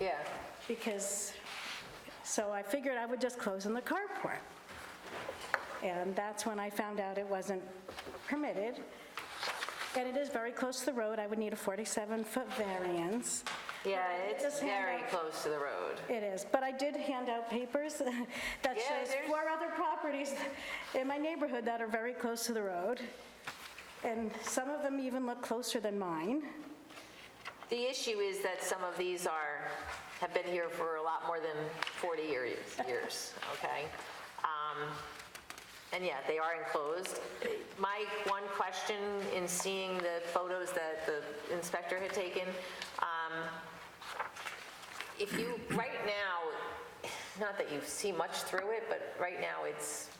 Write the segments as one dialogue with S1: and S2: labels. S1: Yeah,
S2: because, so I figured I would just close in the carport. And that's when I found out it wasn't permitted. And it is very close to the road, I would need a 47-foot variance.
S1: yeah,
S2: But I
S1: it's
S2: just hand
S1: very
S2: out-
S1: close to the road.
S2: It is, but I did hand out papers that
S1: Yeah,
S2: shows
S1: there's-
S2: four other properties in my neighborhood that are very close to the road, and some of them even look closer than mine.
S1: The issue is that some of these are, have been here for a lot more than 40 year- years, okay? Um, And yeah, they are enclosed. My one question in seeing the photos that the inspector had taken, um, if you, right now, not that you see much through it, but right now it's,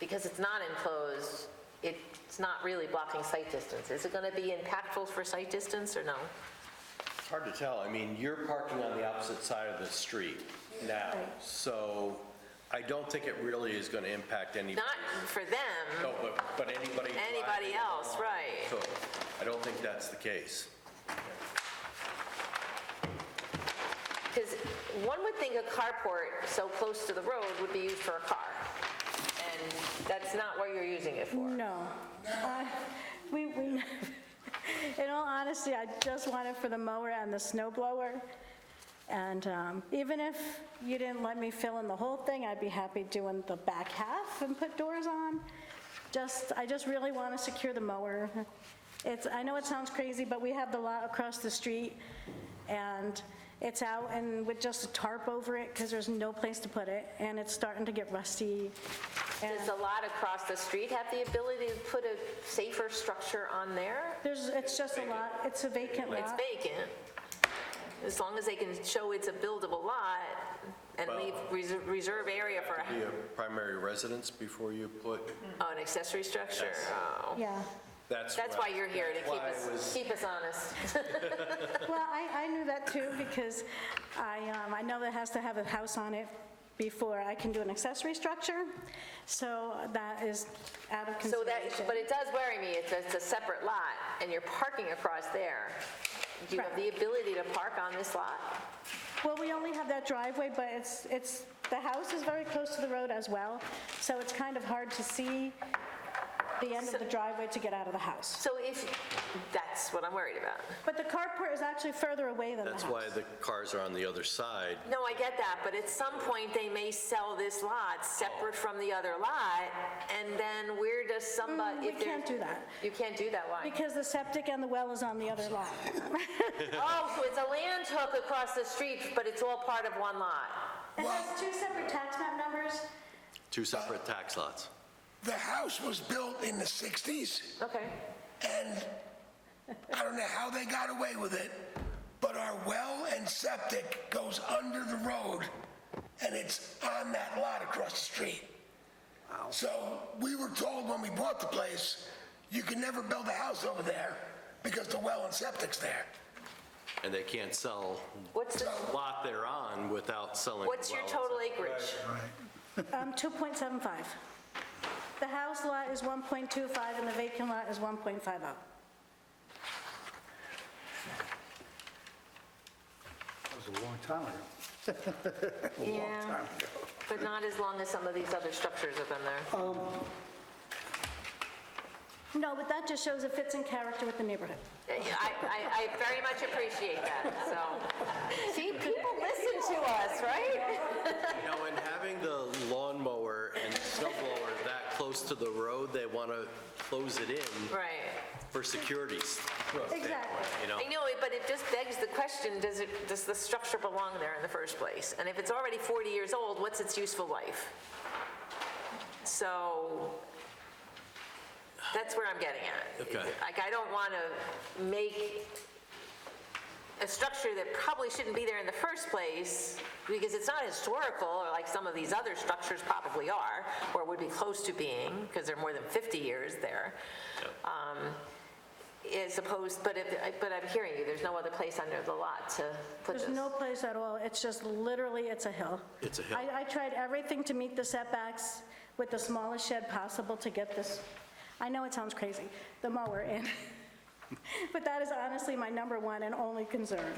S1: because it's not enclosed, it's not really blocking sight distance. Is it going to be impactful for sight distance or no?
S3: It's hard to tell. I mean, you're parking on the opposite side of the street now, so I don't think it really is going to impact any, no,
S1: Not for them,
S3: but, but anybody.
S1: anybody
S3: driving
S1: else,
S3: along.
S1: right.
S3: So I don't think that's the case.
S1: Because one would think a carport so close to the road would be used for a car. And that's not what you're using it for.
S2: No. Uh, We, we, in all honesty, I just want it for the mower and the snow blower. And um, even if you didn't let me fill in the whole thing, I'd be happy doing the back half and put doors on. Just, I just really want to secure the mower. It's, I know it sounds crazy, but we have the lot across the street, and it's out and with just a tarp over it, because there's no place to put it, and it's starting to get rusty. and-
S1: Does a lot across the street have the ability to put a safer structure on there?
S2: There's, it's just a lot, it's a vacant
S1: It's
S2: lot.
S1: vacant. As long as they can show it's a buildable lot and leave reser- reserve area for
S3: Be a primary residence before you put,
S1: oh, an accessory structure. Oh.
S2: Yeah.
S3: that's.
S1: That's why you're here, to
S3: that's
S1: keep
S3: why I was-
S1: us, keep us honest.
S2: Well, I, I knew that too because I, um, I know that has to have a house on it before I can do an accessory structure. So that is out of
S1: So that,
S2: consideration.
S1: but it does worry me, it's, it's a separate lot, and you're parking across there. Do you have the ability to park on this lot?
S2: Well, we only have that driveway, but it's, it's, the house is very close to the road as well. So it's kind of hard to see the end of the driveway to get out of the house.
S1: So if, that's what I'm worried about.
S2: But the carport is actually further away than the house.
S3: That's why the cars are on the other side.
S1: No, I get that, but at some point, they may sell this lot separate
S2: Oh.
S1: from the other lot, and then where does
S2: Mm,
S1: somebody,
S2: We
S1: if there's...
S2: can't do that
S1: You can't do that, why?
S2: because the septic and the well is on the other lot.
S1: Oh, so it's a land hook across the street, but it's all part of one lot?
S2: It has two separate tax map numbers.
S3: Two separate tax lots.
S4: The house was built in the 60s,
S1: Okay.
S4: and I don't know how they got away with it, but our well and septic goes under the road, and it's on that lot across the street. So we were told when we bought the place, you can never build a house over there because the well and septic's there.
S3: And they can't sell
S1: What's the,
S3: the lot they're on without selling.
S1: what's your
S3: wells.
S1: total acreage?
S2: Um, 2.75. The house lot is 1.25 and the vacant lot is 1.50.
S5: That was a long time ago.
S1: Yeah, but not as long as some of these other structures have been there.
S2: No, but that just shows it fits in character with the neighborhood.
S1: I, I, I very much appreciate that, so. See, people listen to us, right?
S3: You know, and having the lawnmower and snow blower that close to the road, they want to close it in
S1: Right.
S3: for security standpoint,
S2: Exactly.
S3: you know?
S1: I know, it, but it just begs the question, does it, does the structure belong there in the first place? And if it's already 40 years old, what's its useful life? So, that's where I'm getting at.
S3: Okay.
S1: Like, I don't want to make a structure that probably shouldn't be there in the first place, because it's not historical, or like some of these other structures probably are, or would be close to being, because they're more than 50 years there. Um, As opposed, but if, but I'm hearing you, there's no other place under the lot to put
S2: There's
S1: this.
S2: no place at all, it's just literally, it's a hill.
S3: It's a hill.
S2: I, I tried everything to meet the setbacks with the smallest shed possible to get this, I know it sounds crazy, the mower in. But that is honestly my number one and only concern.